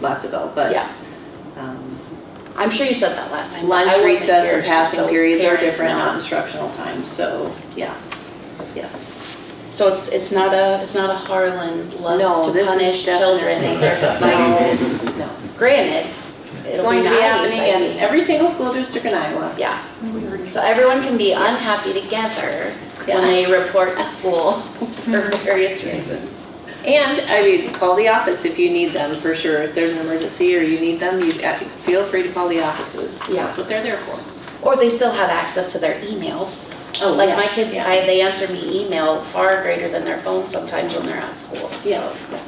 last ago, but, Yeah, um, I'm sure you said that last time. but I lunch, wasn't recess, here, and just so passing periods are parents different, know. not instructional time, so, yeah, yes. So it's, it's not a, it's not a Harlan loves No, to this is punish children definitely- and their devices. No, Granted, it's it'll be going to be nice, happening I in mean. every single school district in Iowa. Yeah, so everyone can be unhappy together when Yeah. they report to school for various reasons. And, I mean, call the office if you need them, for sure, if there's an emergency or you need them, you, uh, feel free to call the offices. Yeah. That's what they're there for. Or they still have access to their emails. Oh, Like yeah, my kids, yeah. I, they answer me email far greater than their phone sometimes when they're at school, so. Yeah, yeah.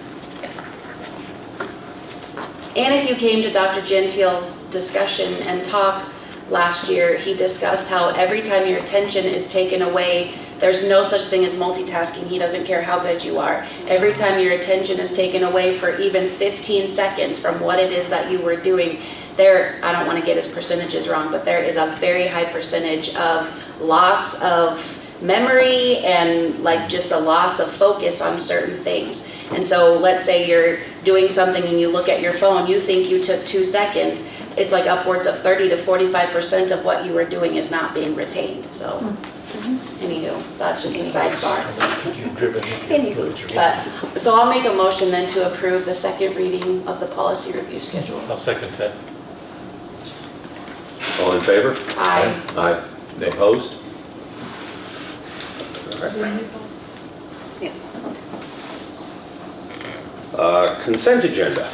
And if you came to Dr. Gentile's discussion and talk last year, he discussed how every time your attention is taken away, there's no such thing as multitasking. He doesn't care how good you are. Every time your attention is taken away for even 15 seconds from what it is that you were doing, there, I don't want to get his percentages wrong, but there is a very high percentage of loss of memory and like just a loss of focus on certain things. And so let's say you're doing something and you look at your phone, you think you took two seconds. It's like upwards of 30 to 45% of what you were doing is not being retained. So, anywho, that's just a sidebar. You've driven. But, so I'll make a motion then to approve the second reading of the policy review schedule. I'll second that. All in favor? Aye. Aye. Opposed? Yeah. Uh, Consent agenda.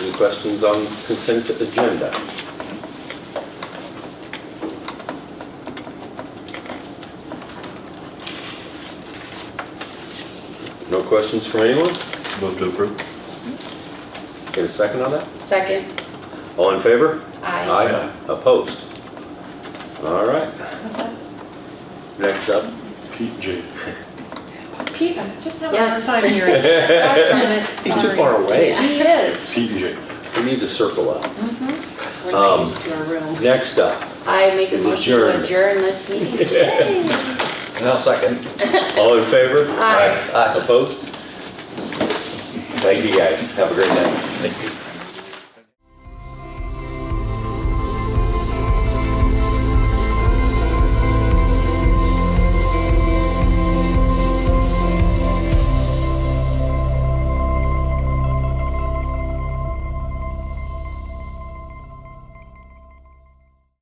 Any questions on consent agenda? No questions from anyone? Move to approve. Get a second on that? Second, All in favor? aye. Opposed? All right. Next up. Pete J. Pete, I'm just having a hard Yes. time hearing. Back from it. He's too Sorry. far away. It is. Pete J. We need to circle up. We're not Um, used to our room. Next up, I make a Is motion to adjourned. adjourn this meeting. And I'll second. all in favor? Aye. Opposed? Thank you guys. Have a great night. Thank you.